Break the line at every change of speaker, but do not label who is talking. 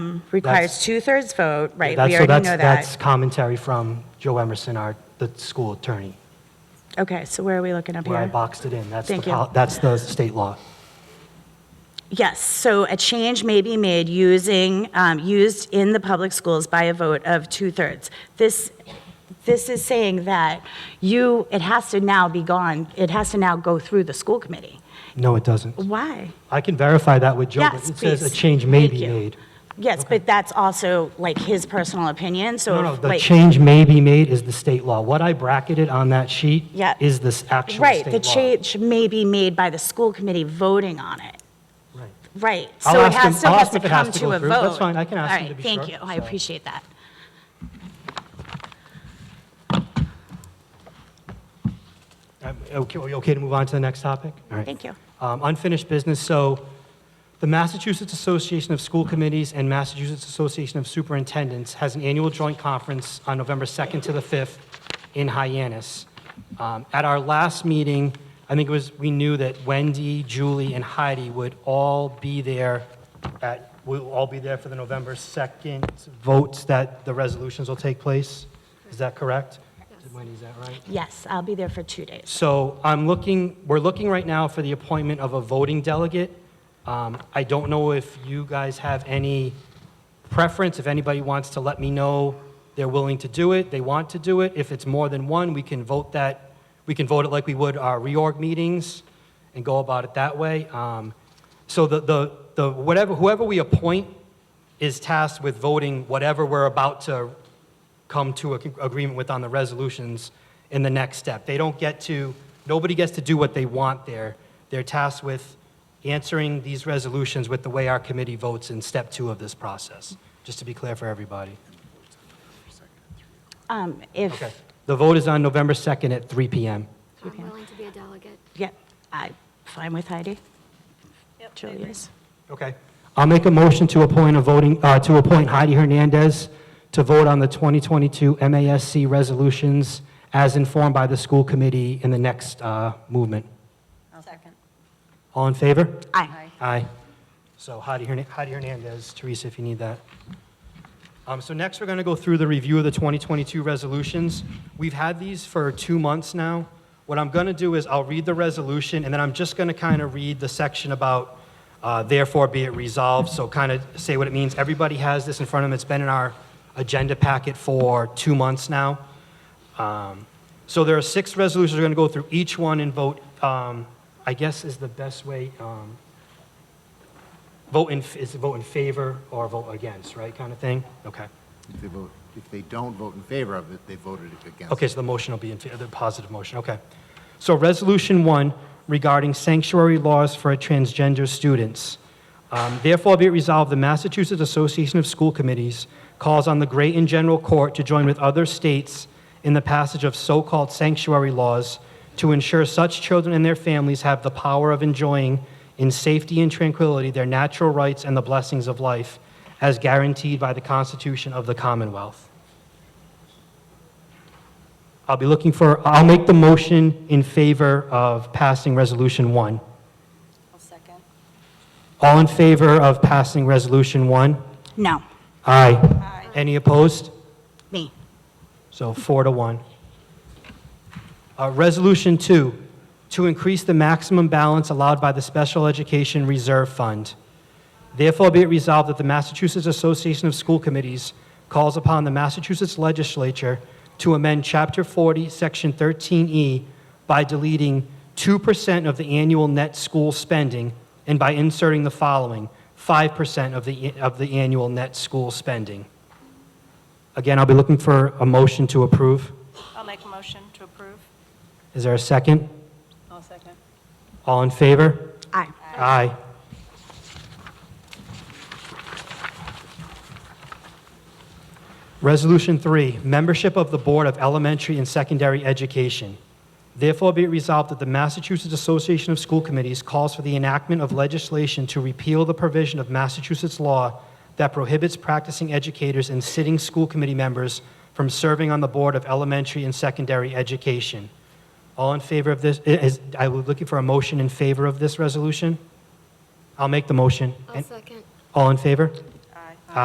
requires two-thirds vote, right?
That's-
We
so
already
that's-
know
That's
that.
commentary from Joe Emerson, our, the school attorney,
Okay, so where are we looking up
where I
here?
boxed it in. That's the,
Thank you.
pol- that's the state law.
Yes, so a change may be made using, um, used in the public schools by a vote of two-thirds. This, this is saying that you, it has to now be gone, it has to now go through the school committee.
No, it doesn't.
Why?
I can verify that with Joe, but
Yes,
it says a
please.
change may
Thank
be
you.
made.
Yes, but that's also like his personal opinion, so.
No, no,
if,
the
like-
change may be made is the state law. What I bracketed on that sheet
Yeah.
is this actual
Right,
state law.
the change may be made by the school committee voting on it.
Right.
Right,
I'll
so it
ask him-
has, still
I'll
has
ask
to
if it has
come to
to
a
go
vote.
through. That's fine, I can ask him to be
All right,
sure,
thank you, I
so.
appreciate that.
Um, Okay, are you okay to move on to the next topic? All right.
Thank you.
Um, Unfinished business, so the Massachusetts Association of School Committees and Massachusetts Association of Superintendents has an annual joint conference on November 2nd to the 5th in Hyannis. Um, At our last meeting, I think it was, we knew that Wendy, Julie, and Heidi would all be there at, will all be there for the November 2nd votes that the resolutions will take place. Is that correct? Wendy, is that right?
Yes, I'll be there for two days.
So I'm looking, we're looking right now for the appointment of a voting delegate. Um, I don't know if you guys have any preference, if anybody wants to let me know they're willing to do it, they want to do it. If it's more than one, we can vote that, we can vote it like we would our reorg meetings and go about it that way. Um, So the, the, the, whatever, whoever we appoint is tasked with voting whatever we're about to come to an agreement with on the resolutions in the next step. They don't get to, nobody gets to do what they want there. They're tasked with answering these resolutions with the way our committee votes in step two of this process, just to be clear for everybody.
Um, If,
Okay. The vote is on November 2nd at 3 PM.
You can.
I'm willing to be a delegate.
yeah, I'm fine with Heidi. Julie is.
Okay. I'll make a motion to appoint a voting, uh, to appoint Heidi Hernandez to vote on the 2022 MASC resolutions as informed by the school committee in the next uh, movement.
Second.
All in favor?
Aye.
Aye. So Heidi Hern- Heidi Hernandez, Teresa, if you need that. Um, So next, we're going to go through the review of the 2022 resolutions. We've had these for two months now. What I'm going to do is I'll read the resolution, and then I'm just going to kind of read the section about uh, therefore be it resolved, so kind of say what it means. Everybody has this in front of them. It's been in our agenda packet for two months now. Um, So there are six resolutions. We're going to go through each one and vote, um, I guess is the best way, um, vote in, is it vote in favor or vote against, right, kind of thing? Okay.
If they vote, if they don't vote in favor of it, they voted against.
Okay, so the motion will be in, fa- the positive motion, okay. So Resolution 1 regarding sanctuary laws for transgender students. Um, Therefore be it resolved, the Massachusetts Association of School Committees calls on the Great and General Court to join with other states in the passage of so-called sanctuary laws to ensure such children and their families have the power of enjoying in safety and tranquility their natural rights and the blessings of life as guaranteed by the Constitution of the Commonwealth. I'll be looking for, I'll make the motion in favor of passing Resolution 1.
I'll second.
All in favor of passing Resolution 1?
No,
Aye. Any opposed?
me.
So four to one. Uh, Resolution two, to increase the maximum balance allowed by the Special Education Reserve Fund. Therefore be it resolved that the Massachusetts Association of School Committees calls upon the Massachusetts Legislature to amend Chapter 40, Section 13E by deleting 2% of the annual net school spending and by inserting the following, 5% of the, of the annual net school spending. Again, I'll be looking for a motion to approve.
I'll make a motion to approve.
Is there a second?
I'll second.
All in favor?
Aye.
Aye. Resolution three, membership of the Board of Elementary and Secondary Education. Therefore be it resolved that the Massachusetts Association of School Committees calls for the enactment of legislation to repeal the provision of Massachusetts law that prohibits practicing educators and sitting school committee members from serving on the Board of Elementary and Secondary Education. All in favor of this, i- is, I was looking for a motion in favor of this resolution? I'll make the motion.
I'll second.
All in favor?